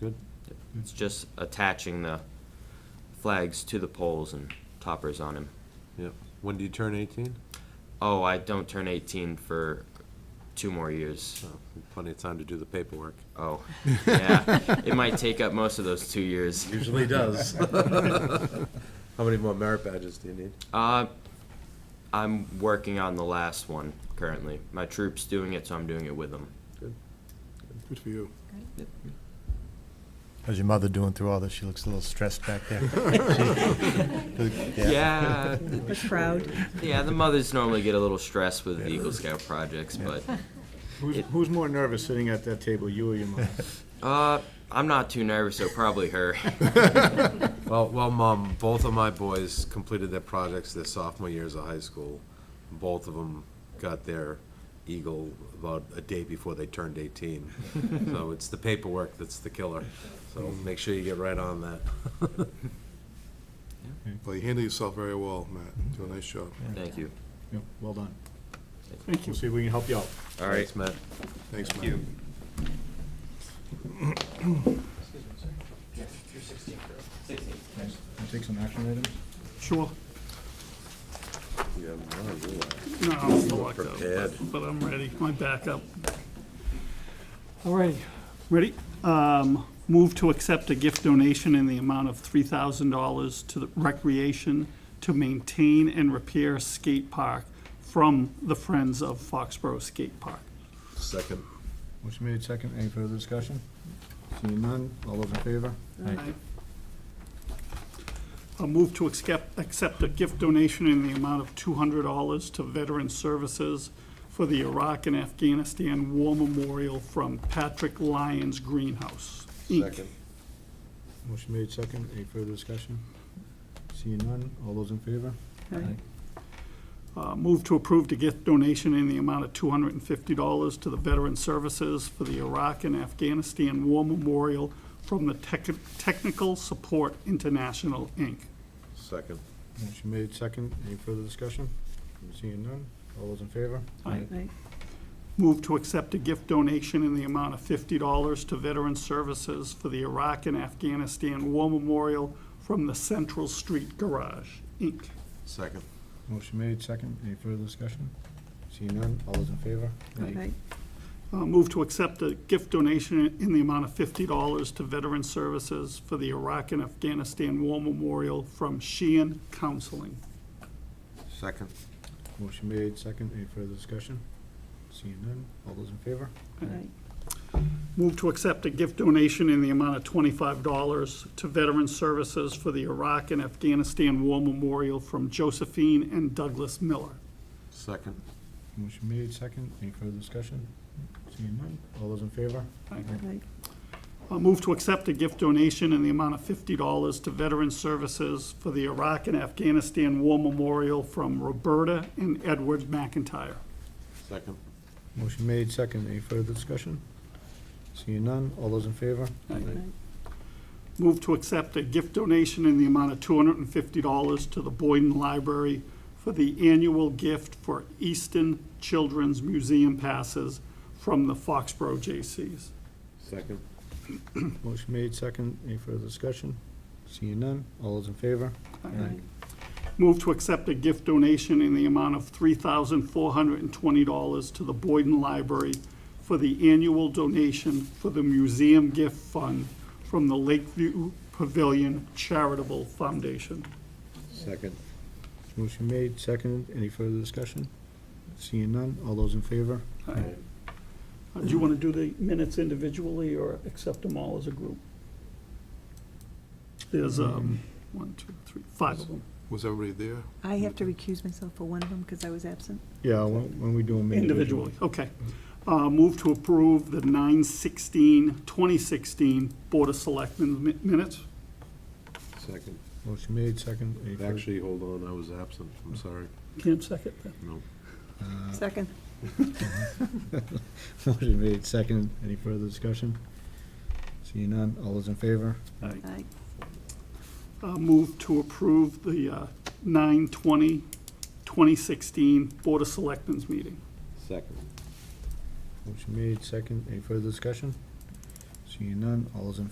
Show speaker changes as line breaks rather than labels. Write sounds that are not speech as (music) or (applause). Good.
It's just attaching the flags to the poles and toppers on him.
Yep. When do you turn 18?
Oh, I don't turn 18 for two more years.
Oh, plenty of time to do the paperwork.
Oh, yeah. It might take up most of those two years.
Usually does. How many more merit badges do you need?
(laughs) Uh, I'm working on the last one currently. My troop's doing it, so I'm doing it with them.
Good for you.
How's your mother doing through all this? She looks a little stressed back there.
Yeah. Yeah,
(laughs) We're proud.
the mothers normally get a little stressed with the Eagle Scout projects, but
Who's, who's more nervous sitting at that table, you or your
(laughs)
mom?
uh, I'm not too nervous, so probably her. (laughs)
Well, well, Mom, both of my boys completed their projects their sophomore years of high school. Both of them got their Eagle about a day before they turned (laughs) 18. So it's the paperwork that's the killer. So make sure you get right on that.
Well, you handle yourself very well, Matt. Do a nice job.
Thank you.
Well done. Thank you. See if we can help you out.
All right.
Thanks, Matt.
Thanks, Matt.
Take some action items?
Sure.
You have one, you are
No, I'm still locked up,
prepared.
but I'm ready. My backup. All right, ready? Um, Move to accept a gift donation in the amount of $3,000 to the recreation to maintain and repair skate park from the Friends of Foxborough Skate Park.
Second.
Motion made second. Any further discussion? Seeing none. All those in favor?
A move to accept, accept a gift donation in the amount of two hundred dollars to Veteran Services for the Iraq and Afghanistan War Memorial from Patrick Lyons Greenhouse, Inc.
Second.
Motion made second. Any further discussion? Seeing none. All those in favor?
Uh, move to approve the gift donation in the amount of two hundred and fifty dollars to the Veteran Services for the Iraq and Afghanistan War Memorial from the Tech- Technical Support International, Inc.
Second.
Motion made second. Any further discussion? Seeing none. All those in favor?
Right.
Move to accept a gift donation in the amount of fifty dollars to Veteran Services for the Iraq and Afghanistan War Memorial from the Central Street Garage, Inc.
Second.
Motion made second. Any further discussion? Seeing none. All those in favor?
Right.
Uh, Move to accept a gift donation in the amount of fifty dollars to Veteran Services for the Iraq and Afghanistan War Memorial from Sheehan Counseling.
Second.
Motion made second. Any further discussion? Seeing none. All those in favor?
Right.
Move to accept a gift donation in the amount of twenty-five dollars to Veteran Services for the Iraq and Afghanistan War Memorial from Josephine and Douglas Miller.
Second.
Motion made second. Any further discussion? Seeing none. All those in favor?
Right.
I'll move to accept a gift donation in the amount of fifty dollars to Veteran Services for the Iraq and Afghanistan War Memorial from Roberta and Edward McIntyre.
Second.
Motion made second. Any further discussion? Seeing none. All those in favor?
Move to accept a gift donation in the amount of two hundred and fifty dollars to the Boyden Library for the annual gift for Easton Children's Museum passes from the Foxborough J.C.'s.
Second.
Motion made, second. Any further discussion? Seeing none. All those in favor?
Right.
Move to accept a gift donation in the amount of $3,420 to the Boyden Library for the annual donation for the Museum Gift Fund from the Lakeview Pavilion Charitable Foundation.
Second.
Motion made, second. Any further discussion? Seeing none. All those in favor?
Uh, Do you want to do the minutes individually or accept them all as a group? There's um, one, two, three, five of them.
Was everybody there?
I have to recuse myself for one of them because I was absent.
Yeah, when, when we do them individually.
Individually, okay. Uh, Move to approve the 9/16/2016 Board of Selectmen mi- minutes.
Second.
Motion made, second. Any further-
Actually, hold on, I was absent, I'm sorry.
Can't second that.
No.
Second.
Motion made, second. Any further discussion? Seeing none. All those in favor?
Right.
Uh, Move to approve the uh, 9/20/2016 Board of Selectmen's meeting.
Second.
Motion made, second. Any further discussion? Seeing none. All those in